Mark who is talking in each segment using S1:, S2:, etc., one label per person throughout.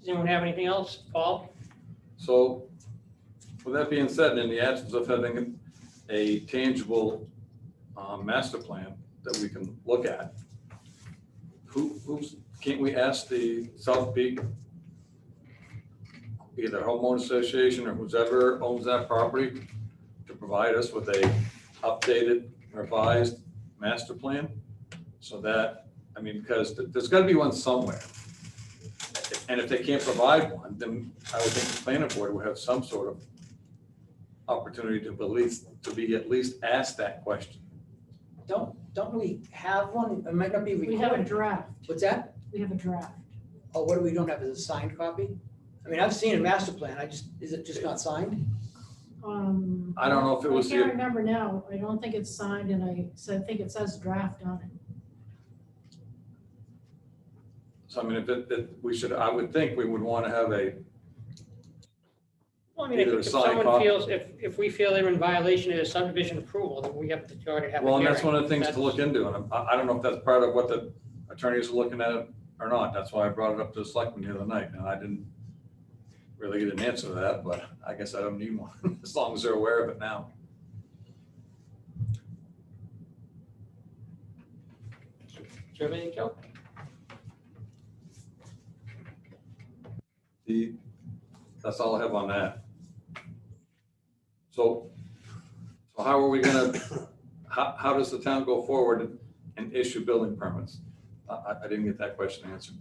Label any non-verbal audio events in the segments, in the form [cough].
S1: Does anyone have anything else? Paul?
S2: So with that being said, in the absence of having a tangible uh, master plan that we can look at, who, who's, can't we ask the South Peak, either homeowner association or whoever owns that property, to provide us with a updated, revised master plan? So that, I mean, because th- there's got to be one somewhere. And if they can't provide one, then I would think the planning board would have some sort of opportunity to believe, to be at least asked that question.
S3: Don't, don't we have one? It might not be
S4: We have a
S3: recorded.
S4: draft,
S3: What's that?
S4: we have a draft.
S3: Oh, what do we don't have is a signed copy? I mean, I've seen a master plan. I just, is it just not signed?
S4: Um,
S2: I don't know if
S4: I
S2: it was,
S4: can't
S2: the-
S4: remember now, I don't think it's signed and I said, I think it says draft on it.
S2: so I mean, if it, that we should, I would think we would want to have a,
S1: Well, I mean, if
S2: Either a
S1: if
S2: signed
S1: someone
S2: copy.
S1: feels, if, if we feel they're in violation of subdivision approval, then we have to go ahead and have a hearing.
S2: well, and that's one of the things to look into. And I, I don't know if that's part of what the attorneys are looking at or not. That's why I brought it up to the selectmen the other night. And I didn't really get an answer to that, but I guess I don't need one, [laughs] as long as they're aware of it now.
S1: Do you have anything, Joe?
S2: The, that's all I have on that. So, so how are we gonna, [coughs] how, how does the town go forward and issue building permits? I- I, I didn't get that question answered.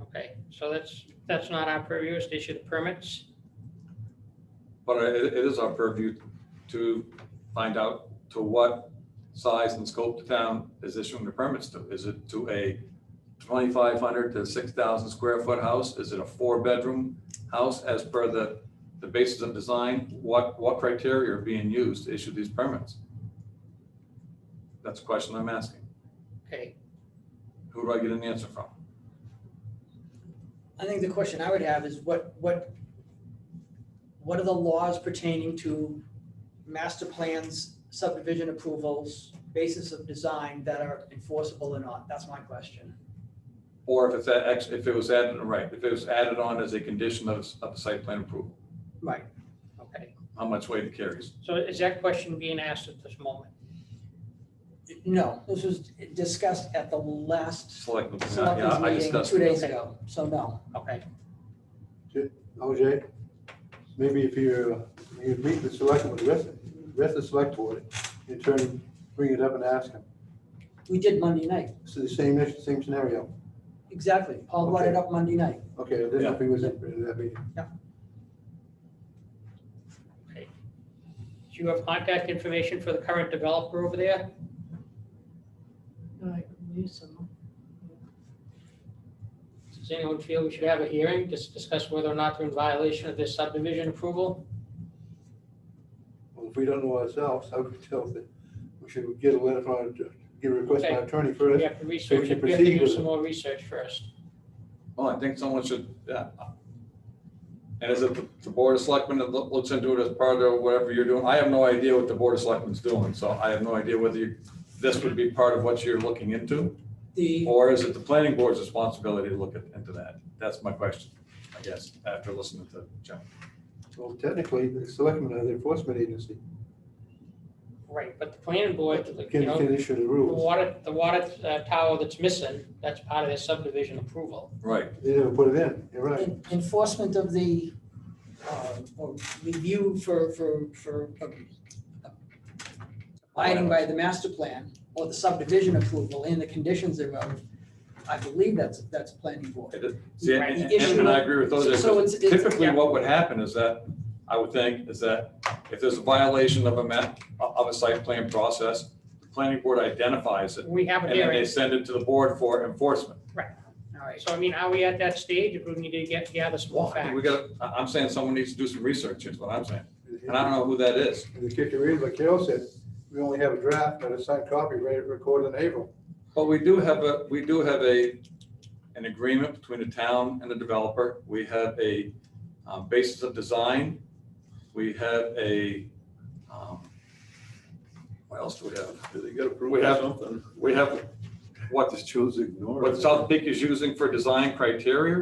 S1: Okay, so that's, that's not our purview, it's to issue the permits.
S2: But it, it is our purview to find out to what size and scope the town is issuing the permits to. Is it to a twenty-five hundred to six thousand square foot house? Is it a four-bedroom house as per the, the basis of design? What, what criteria are being used to issue these permits? That's a question I'm asking.
S1: Okay,
S2: Who do I get an answer from?
S3: I think the question I would have is what, what, what are the laws pertaining to master plans, subdivision approvals, basis of design that are enforceable or not? That's my question.
S2: Or if it's, a- if it was added, right, if it was added on as a condition of, of the site plan approval,
S3: Right.
S1: okay.
S2: how much weight it carries?
S1: So is that question being asked at this moment?
S3: No, this was discussed at the last
S2: Selectmen, yeah, I
S3: selectmen's meeting
S2: discussed.
S3: two days ago, so no.
S1: Okay,
S5: OJ, maybe if you, you meet the select, with the rest, rest of the select board, in turn, bring it up and ask them.
S3: We did Monday night,
S5: It's the same issue, same scenario.
S3: exactly. Paul brought it up Monday night.
S5: Okay, then if he was in in that meeting.
S1: do you have contact information for the current developer over there?
S4: I believe so.
S1: Does anyone feel we should have a hearing, just discuss whether or not they're in violation of this subdivision approval?
S5: Well, if we don't know ourselves, I would tell that we should get a letter from, our att- get a request from our attorney
S1: We
S5: first.
S1: have to research,
S5: we can
S1: it. we have to
S5: proceed
S1: do
S5: with
S1: some
S5: it.
S1: more research first.
S2: Well, I think someone should, yeah. And is it the- the Board of Selectmen that loo- looks into it as part of whatever you're doing? I have no idea what the Board of Selectmen's doing, so I have no idea whether you, this would be part of what you're looking into?
S3: The,
S2: Or is it the planning board's responsibility to look at- into that? That's my question, I guess, after listening to Jim.
S5: Well, technically, the selectmen are the enforcement agency.
S1: Right, but the planning board, you
S5: Can,
S1: know,
S5: can issue the
S1: the
S5: rules.
S1: water, the water uh, tower that's missing, that's part of their subdivision approval.
S2: Right,
S5: They never put it in, you're right.
S3: en- enforcement of the, uh, or review for, for, for um, abiding by the master plan or the subdivision approval and the conditions thereof, I believe that's, that's planning board.
S2: It is- See, and,
S1: Right,
S3: the
S2: and-
S3: issue-
S2: and I agree with those.
S3: so- so it's- it's-
S2: Typically,
S3: yeah.
S2: what would happen is that, I would think, is that if there's a violation of a map, of a site plan process, the planning board identifies it,
S1: We have a
S2: and then they
S1: hearing,
S2: send it to the board for enforcement.
S3: All right.
S1: so I mean, are we at that stage, if we need to get, gather some more
S2: Why? We
S1: facts?
S2: gotta, I- I'm saying someone needs to do some research, is what I'm saying, and I don't know who that is.
S5: And the kicker is, like Carol said, we only have a draft, not a signed copy, ready to record in April.
S2: But we do have a, we do have a, an agreement between the town and the developer. We have a um, basis of design. We have a, um, what else do we have?
S6: Do they get
S2: We
S6: approved
S2: have-
S6: or something?
S2: We have what,
S6: Just chose to ignore it.
S2: what South Peak is using for design criteria.